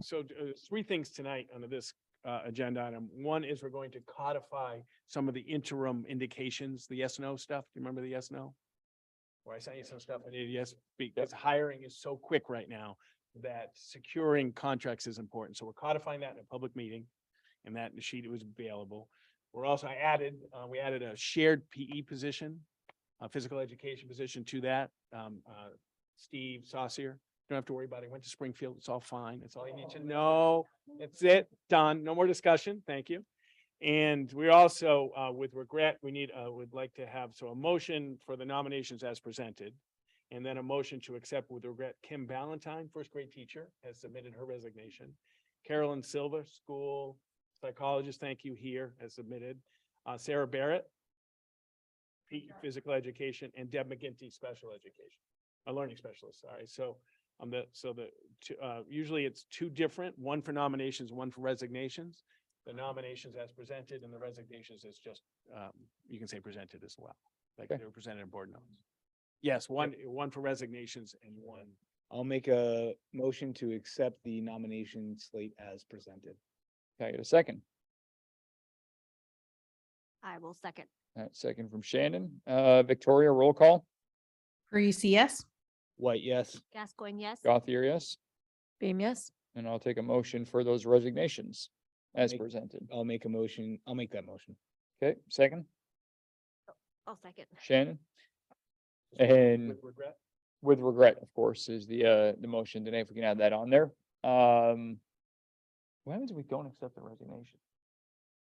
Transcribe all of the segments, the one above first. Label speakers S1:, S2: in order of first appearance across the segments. S1: so uh, there's three things tonight under this uh, agenda item. One is we're going to codify some of the interim indications, the yes, no stuff. Do you remember the yes, no? Where I sent you some stuff I did yes, because hiring is so quick right now that securing contracts is important. So we're codifying that in a public meeting. And that sheet was available. We're also, I added, uh, we added a shared PE position, a physical education position to that. Um, uh, Steve Saucier. Don't have to worry about it. Went to Springfield. It's all fine. That's all you need to know. That's it. Done. No more discussion. Thank you. And we also, uh, with regret, we need, uh, would like to have, so a motion for the nominations as presented. And then a motion to accept with regret Kim Ballantyne, first grade teacher, has submitted her resignation. Carolyn Silva, school psychologist, thank you here, has submitted. Uh, Sarah Barrett, P- physical education, and Deb McGinty, special education, a learning specialist, sorry. So on the, so the, two- uh, usually it's two different, one for nominations, one for resignations. The nominations as presented and the resignations is just, um, you can say presented as well, like they
S2: Okay.
S1: were presented in board notes. Yes, one, one for resignations and one.
S2: I'll make a motion to accept the nomination slate as presented.
S3: Can I get a second?
S4: I will second.
S3: All right, second from Shannon. Uh, Victoria, roll call.
S5: Parisi, yes.
S2: White, yes.
S4: Gascoigne, yes.
S3: Gothier, yes.
S5: Beam, yes.
S3: And I'll take a motion for those resignations as
S2: Make-
S3: presented.
S2: I'll make a motion. I'll make that motion.
S3: Okay, second,
S4: I'll second.
S3: Shannon,
S1: Just
S3: And-
S1: With regret,
S3: with regret, of course, is the, uh, the motion today, if we can add that on there. Um, what happens if we don't accept the resignation?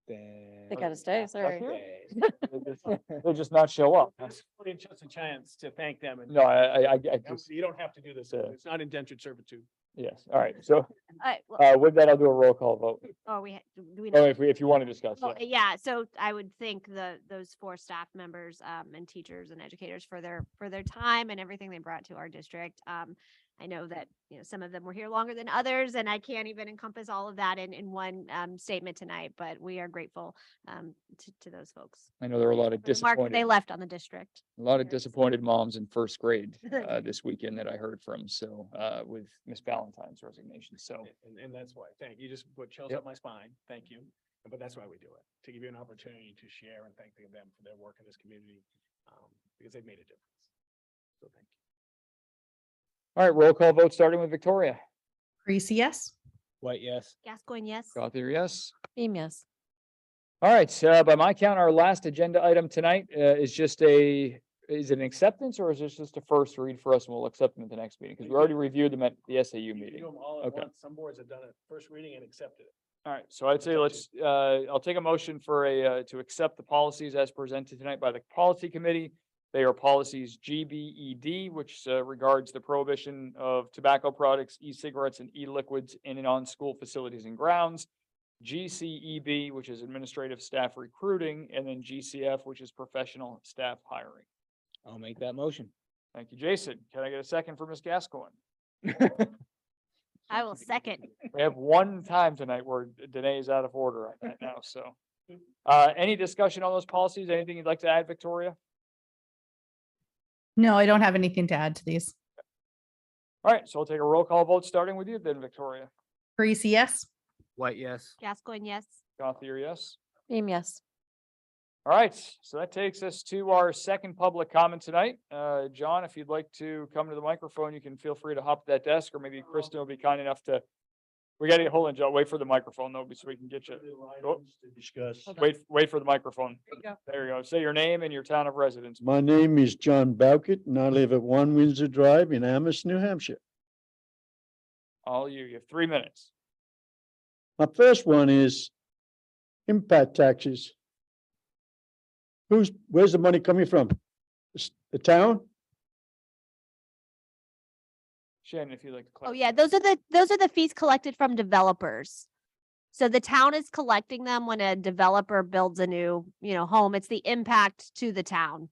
S2: Then.
S5: They gotta stay, sorry.
S2: Eh, oh, Okay.
S3: They'll just- they'll just not show up.
S1: that's only just a chance to thank them and
S3: Oh. No, I, I, I I
S1: Now,
S3: just,
S1: you don't have to do this.
S3: Yeah.
S1: It's not indentured servitude.
S3: yes, all right, so,
S4: All right, well,
S3: uh, with that, I'll do a roll call vote.
S4: oh, we, ha- do do we
S3: Oh,
S4: know?
S3: if we, if you want to discuss, yeah.
S4: Yeah, so I would thank the, those four staff members, um, and teachers and educators for their, for their time and everything they brought to our district. Um, I know that, you know, some of them were here longer than others, and I can't even encompass all of that in, in one, um, statement tonight, but we are grateful, um, to, to those folks.
S3: I know there were a lot of
S4: for the mark
S3: disappointed.
S4: They left on the district.
S3: A lot of
S4: Yes.
S3: disappointed moms in first grade uh, this weekend that I heard from, so uh, with Miss Ballantyne's resignation, so.
S1: And, and that's why, thank you, just put chills
S3: Yep.
S1: up my spine, thank you. But that's why we do it, to give you an opportunity to share and thank them for their work in this community, um, because they've made a difference. So thank you.
S3: All right, roll call vote starting with Victoria.
S5: Parisi, yes.
S2: White, yes.
S4: Gascoigne, yes.
S3: Gothier, yes.
S5: Beam, yes.
S3: All right, so by my count, our last agenda item tonight uh, is just a, is it an acceptance or is this just a first read for us and we'll accept them at the next meeting? Because we already reviewed them at the SAU
S1: You can do
S3: meeting.
S1: them all at
S3: Okay.
S1: once, some boards have done it first reading and accepted it.
S3: All right, so I'd say let's, uh, I'll take a motion for a, uh, to accept the policies as presented tonight by the policy committee. They are policies GBED, which uh, regards the prohibition of tobacco products, e-cigarettes and e-liquids in and on school facilities and grounds. GCEB, which is administrative staff recruiting, and then GCF, which is professional staff hiring.
S2: I'll make that motion.
S3: Thank you, Jason. Can I get a second for Ms. Gascoigne?
S4: I will second.
S3: We have one time tonight where Danae is out of order on that now, so. Uh, any discussion on those policies? Anything you'd like to add, Victoria?
S5: No, I don't have anything to add to these.
S3: All right, so we'll take a roll call vote, starting with you then, Victoria.
S5: Parisi, yes.
S2: White, yes.
S4: Gascoigne, yes.
S3: Gothier, yes?
S5: Beam, yes.
S3: All right, so that takes us to our second public comment tonight. Uh, John, if you'd like to come to the microphone, you can feel free to hop at that desk, or maybe Kristen will be kind enough to. We gotta, hold on, John, wait for the microphone though, so we can get you.
S6: discuss.
S5: Hold on.
S3: Wait, wait for the microphone.
S5: There you go.
S3: There you go. Say your name and your town of residence.
S6: My name is John Bowkett and I live at One Windsor Drive in Amherst, New Hampshire.
S3: All you, you have three minutes.
S6: My first one is impact taxes. Who's, where's the money coming from? S- The town?
S3: Shannon, if you'd like to.
S4: Oh,
S3: clarify.
S4: yeah, those are the, those are the fees collected from developers. So the town is collecting them when a developer builds a new, you know, home. It's the impact to the town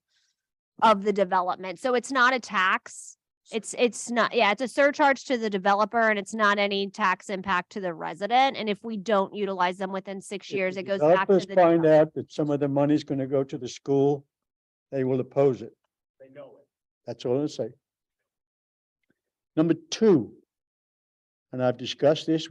S4: of the development. So it's not a tax. It's, it's not, yeah, it's a surcharge to the developer and it's not any tax impact to the resident. And if we don't utilize them within six
S6: If the
S4: years, it goes back to the.
S6: developers Find
S4: developer.
S6: out that some of the money's going to go to the school, they will oppose it.
S1: They know it.
S6: That's all I'm saying. Number two, and I've discussed this